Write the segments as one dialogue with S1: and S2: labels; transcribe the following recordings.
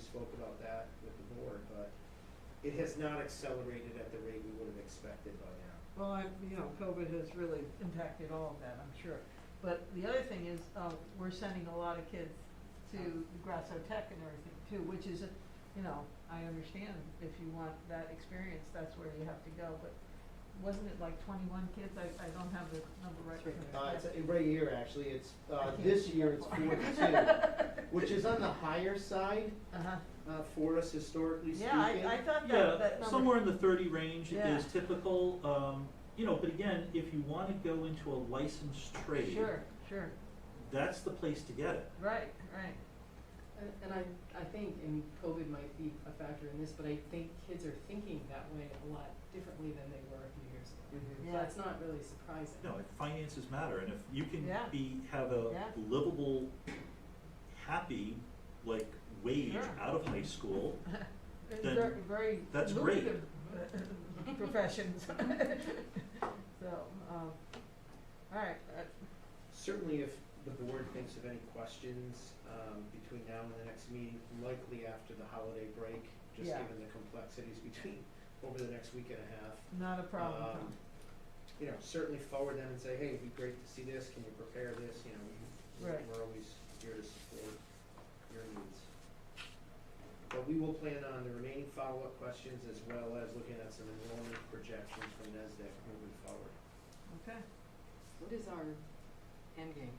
S1: spoke about that with the board, but it has not accelerated at the rate we would have expected by now.
S2: Well, I, you know, COVID has really impacted all of that, I'm sure. But the other thing is, uh, we're sending a lot of kids to Grasso Tech and everything too, which is, a- you know, I understand if you want that experience, that's where you have to go, but wasn't it like twenty-one kids? I, I don't have the number right from there.
S1: Uh, it's uh, right here, actually, it's,
S2: I
S1: uh,
S2: can't
S1: this
S2: see
S1: year it's
S2: that
S1: forty-two, which is on the higher side,
S2: Uh-huh.
S1: uh, for us historically speaking.
S2: Yeah, I, I thought that, that
S3: Yeah,
S2: number.
S3: somewhere in the thirty range
S2: Yeah.
S3: is typical, um, you know, but again, if you wanna go into a licensed trade,
S2: Sure, sure,
S3: that's the place to get it.
S2: right, right.
S4: And and I, I think, and COVID might be a factor in this, but I think kids are thinking that way a lot differently than they were a few years ago.
S1: Mhm.
S2: Yeah.
S4: So it's not really surprising.
S3: You know, if finances matter, and if you can
S2: Yeah.
S3: be, have
S2: Yeah.
S3: a livable, happy, like, wage
S2: Sure.
S3: out of high school,
S2: It's
S3: then
S2: ver- very
S3: that's great.
S2: lucrative, uh, professions. So, um, all right, uh,
S1: Certainly if the board thinks of any questions, um, between now and the next meeting, likely after the holiday break, just
S2: Yeah.
S1: given the complexities between, over the next week and a half.
S2: not a problem.
S1: Um,
S2: Tom.
S1: You know, certainly forward them and say, hey, it'd be great to see this, can you prepare this, you know, we-
S2: Right.
S1: we're always here to support your needs. But we will plan on the remaining follow-up questions as well as looking at some enrollment projections from NESDAQ moving forward.
S2: Okay,
S4: What is our end game?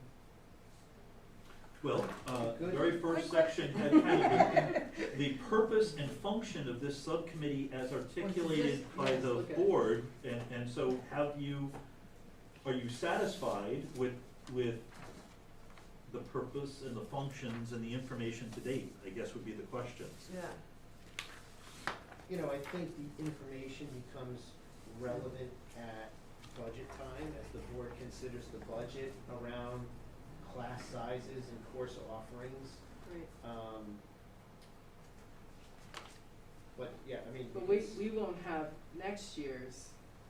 S3: well, uh, the
S1: Good.
S3: very first section had kind of the- the purpose and function of this subcommittee as articulated
S4: just-
S3: by
S4: yes,
S3: the
S4: look at it.
S3: board, and, and so have you, are you satisfied with, with the purpose and the functions and the information to date, I guess would be the questions.
S2: yeah,
S1: You know, I think the information becomes relevant at budget time as the board considers the budget around class sizes and course offerings.
S4: Right,
S1: Um, But, yeah, I mean.
S4: but we, we won't have next year's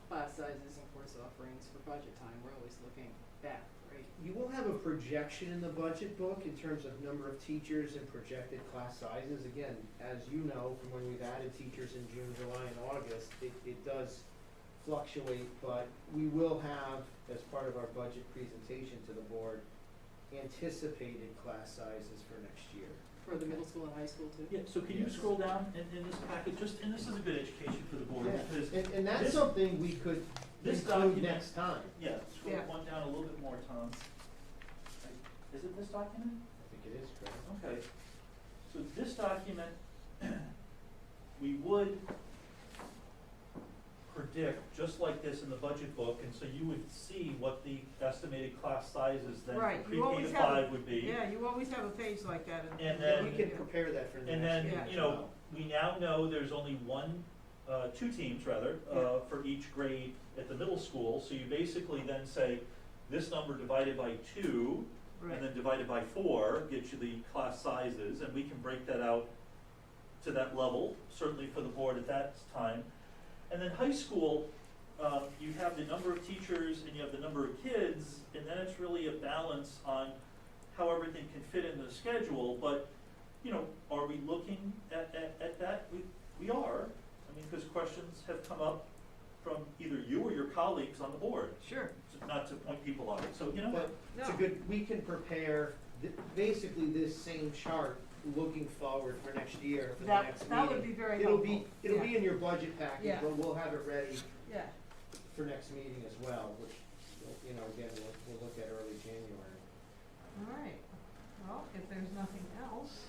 S4: class sizes and course offerings for budget time, we're always looking back, right?
S1: You will have a projection in the budget book in terms of number of teachers and projected class sizes. Again, as you know, from when we've added teachers in June, July, and August, it, it does fluctuate, but we will have, as part of our budget presentation to the board, anticipated class sizes for next year.
S4: For the middle school and high school too?
S3: Yeah, so can you
S1: Yes.
S3: scroll down in, in this packet, just, and this is a good education for the board, because
S1: And, and that's
S3: this-
S1: something we could
S3: this
S1: include
S3: document-
S1: next time.
S3: Yeah, scroll
S2: Yeah.
S3: one down a little bit more, Tom. Is it this document?
S1: I think it is, Chris.
S3: Okay. So this document, we would predict, just like this in the budget book, and so you would see what the estimated class sizes then
S2: Right,
S3: for
S2: you
S3: pre-K to
S2: always have-
S3: five would be.
S2: yeah, you always have a page like that in.
S3: And
S1: Yeah,
S3: then-
S1: We can prepare that for the
S3: And
S1: next meeting
S3: then,
S2: Yeah.
S1: as
S3: you know,
S1: well.
S3: we now know there's only one, uh, two teams rather, uh, for each grade at the middle school. So you basically then say, this number divided by two, and
S2: Right,
S3: then divided by four gets you the class sizes, and we can break that out to that level, certainly for the board at that time. And then high school, um, you have the number of teachers and you have the number of kids, and then it's really a balance on how everything can fit in the schedule, but, you know, are we looking at, at, at that? We, we are, I mean, because questions have come up from either you or your colleagues on the board,
S2: sure,
S3: not to point people out, so, you know what?
S1: But It's a
S2: no,
S1: good, we can prepare th- basically this same chart looking forward for next year, for the
S2: that,
S1: next meeting.
S2: that would be very
S1: It'll
S2: helpful.
S1: be, it'll be
S2: Yeah,
S1: in your budget package,
S2: Yeah.
S1: but we'll have it ready
S2: Yeah,
S1: for next meeting as well, which, you know, again, we'll, we'll look at early January.
S2: all right, well, if there's nothing else,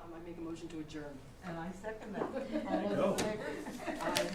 S4: Um, I make a motion to adjourn.
S2: and I second that, all those in
S3: Go.
S2: favor?
S4: Aye.